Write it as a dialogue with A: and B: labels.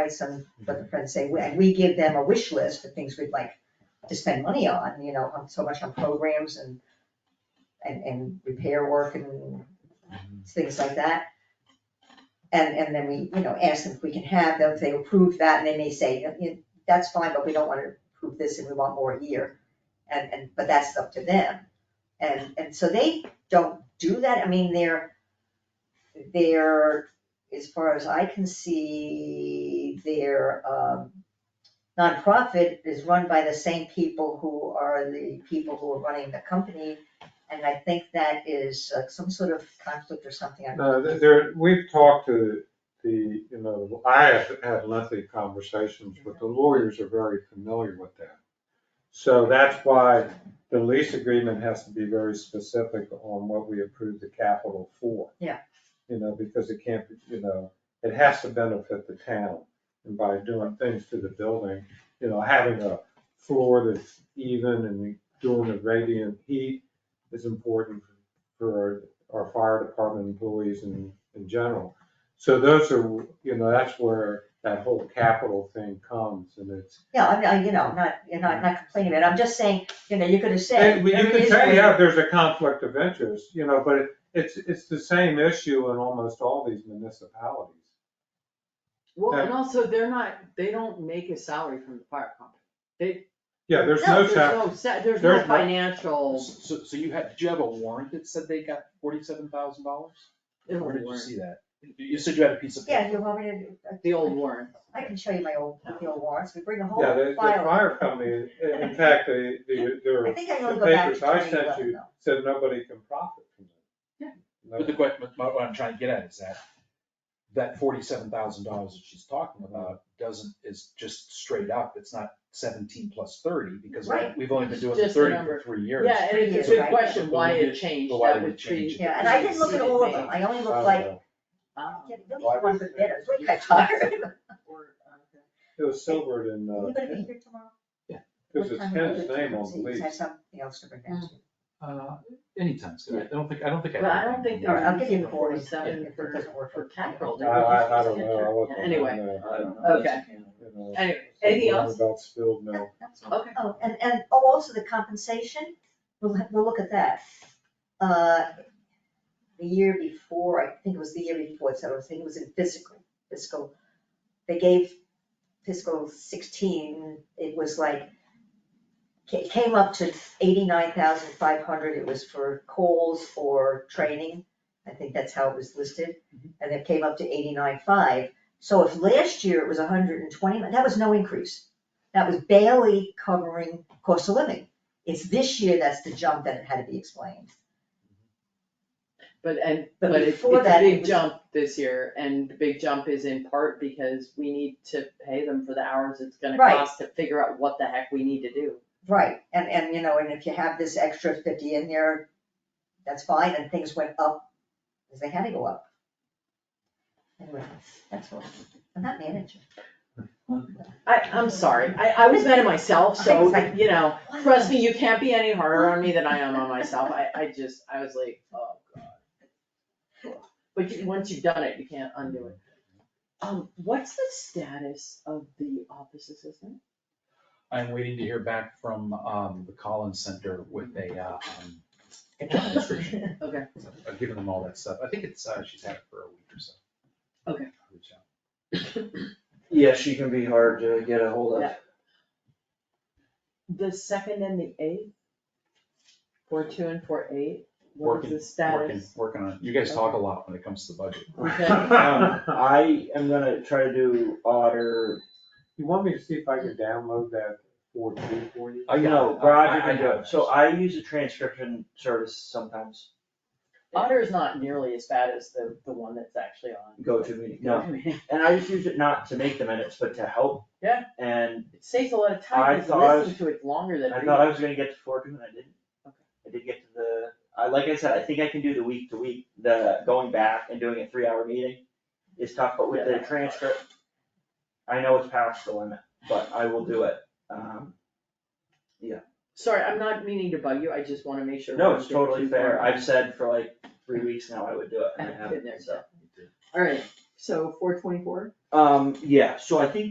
A: price on what the friends say, and we give them a wish list of things we'd like to spend money on, you know, on so much on programs and and and repair work and things like that. And and then we, you know, ask them if we can have them, if they approve that, and they may say, "Yeah, that's fine, but we don't wanna approve this and we want more here. And and, but that's up to them. And and so they don't do that, I mean, they're they're as far as I can see, their um nonprofit is run by the same people who are the people who are running the company. And I think that is uh, some sort of conflict or something. I-
B: No, there- there, we've talked to the, you know, I have had lengthy conversations, but the lawyers are very familiar with that. So that's why the lease agreement has to be very specific on what we approve the capital for.
A: Yeah.
B: You know, because it can't, be you know, it has to benefit the town. And by doing things to the building, you know, having a floor that's even and doing the radiant heat is important for our fire department employees in, in general. So those are, you know, that's where that whole capital thing comes and it's.
A: Yeah, I'm, I- you know, I'm not, you know, I'm not complaining about it. I'm just saying, you know, you could have said.
B: And we- you
A: "There
B: can
A: is
B: say,
A: one."
B: yeah, there's a conflict of interest, you know, but it's, it's the same issue in almost all these municipalities.
C: Well,
B: Yeah.
C: and also, they're not, they don't make a salary from the fire company.
B: Yeah, there's
C: No,
B: no sa-
C: sa- There's no
B: There's no-
C: financial,
D: So, so you had, did you have a warrant that said they got forty-seven thousand dollars?
C: it'll
D: Where did you
C: work.
D: see that? You said you had a piece of.
A: Yeah,
D: paper.
A: you want me to, uh,
C: the old warrant.
A: I can show you my old, the old warrants. We bring a whole
B: yeah, the, the
A: file.
B: fire company, in in fact, the, the, there
A: I
B: are
A: think I only
B: the
A: go back to
B: papers I sent
A: 2011
B: you
A: though.
B: said nobody can profit from
C: Yeah.
B: it.
D: But the question, what I'm trying to get at is that, that forty-seven thousand dollars that she's talking about doesn't, is just straight up, it's not seventeen plus thirty, because we-
A: Right.
D: we've only been doing the
C: Just the
D: thirty
C: number.
D: for three years.
C: Yeah, and it's a
A: Three years,
C: good
A: right.
C: question why
D: But we
C: it
D: did-
C: changed.
D: but why
C: That
D: we
C: would treat.
D: changed it.
A: Yeah, and I didn't look at all of them. I only
B: Uh,
A: looked like, uh,
C: Ah.
A: yeah, the one for the bidders. Look, I tired.
B: It was silvered in,
A: You gonna be
B: uh,
A: here tomorrow?
B: because
A: What
B: it's
A: time are you
B: Ken's
A: gonna
B: name
A: do
B: on the
A: it?
B: lease.
A: Have something else to bring back to you.
D: Uh, anytime's good, I don't think, I don't think I.
C: But I don't think
A: All right,
C: they're
A: I'll give you
C: using
A: the forty
C: forty-seven
A: seven if it
C: for,
A: doesn't work
C: uh, for
A: for.
C: capital.
B: I,
C: They're
B: I, I don't
C: using
B: know, I
C: it for-
B: wasn't. on
C: Anyway,
B: there. I don't know,
C: okay,
B: you know,
C: anyway, anything
B: something
C: else?
B: About spilled milk.
C: Okay.
A: Oh, and, and, oh, also the compensation, we'll, ha- we'll look at that. Uh, The year before, I think it was the year before, so I was thinking it was in fiscal, fiscal, they gave fiscal sixteen, it was like, ca- it came up to eighty-nine thousand five hundred, it was for calls or training, I think that's how it was listed, and it came up to eighty-nine five. So if last year it was hundred and twenty, that was no increase. That was barely covering cost of living. It's this year that's the jump that it had to be explained.
C: But and,
A: But
C: but it's, it's
A: before
C: a
A: that, it
C: big
A: was-
C: jump this year, and the big jump is in part because we need to pay them for the hours it's gonna
A: Right.
C: cost to figure out what the heck we need to do.
A: Right, and, and, you know, and if you have this extra fifty in there, that's fine, and things went up, because they had to go up. Anyway, that's all, I'm not managing.
C: I, I'm sorry, I, I was mad at myself, so, you know, trust me, you can't be any harder on me than I am on myself, I, I just, I was like, oh god. But you, once you've done it, you can't undo it. Um, what's the status of the office assistant?
D: I'm waiting to hear back from, um, the Collins Center with a, uh, um, job description.
C: Okay,
D: I've given them all that stuff, I think it's, uh, she's had it for a week or so.
C: Okay.
D: I'll reach out.
E: Yeah, she can be hard to get a hold of.
C: Yeah. the second and the eighth? Four two and four eight, what is
D: Working,
C: the
D: working,
C: status?
D: working on it. You guys talk a lot when it comes to the budget.
C: Okay.
E: Um, I am gonna try to do otter,
B: You want me to see if I can download that four two for you?
D: I got
E: no,
D: it.
E: Roger
D: I- I- I
E: can do
D: have
E: it, so I use a transcription service sometimes,
C: Otter is not nearly as bad as the, the one that's actually on.
E: go to meeting, no. And I just use it not to make the minutes, but to help.
C: Yeah.
E: And
C: It saves a lot of
E: I
C: time, because
E: thought I
C: listening to it longer than.
E: I
C: reading.
E: thought I was gonna get to four, and I didn't.
C: Okay.
E: I did get to the, I, like I said, I think I can do the week to week, the going back and doing a three hour meeting is tough, but with
C: Yeah,
E: the
C: that's hard.
E: transcript, I know it's past the limit, but I will do it, um.
C: Sorry, I'm not meaning to bug you, I just wanna make sure.
E: No,
C: we're
E: it's
C: getting
E: totally
C: too
E: fair.
C: far.
E: I've said for like three weeks now I would do it and I haven't,
C: Been there,
E: so.
C: Alright, so four twenty-four?
E: Um, yeah, so I think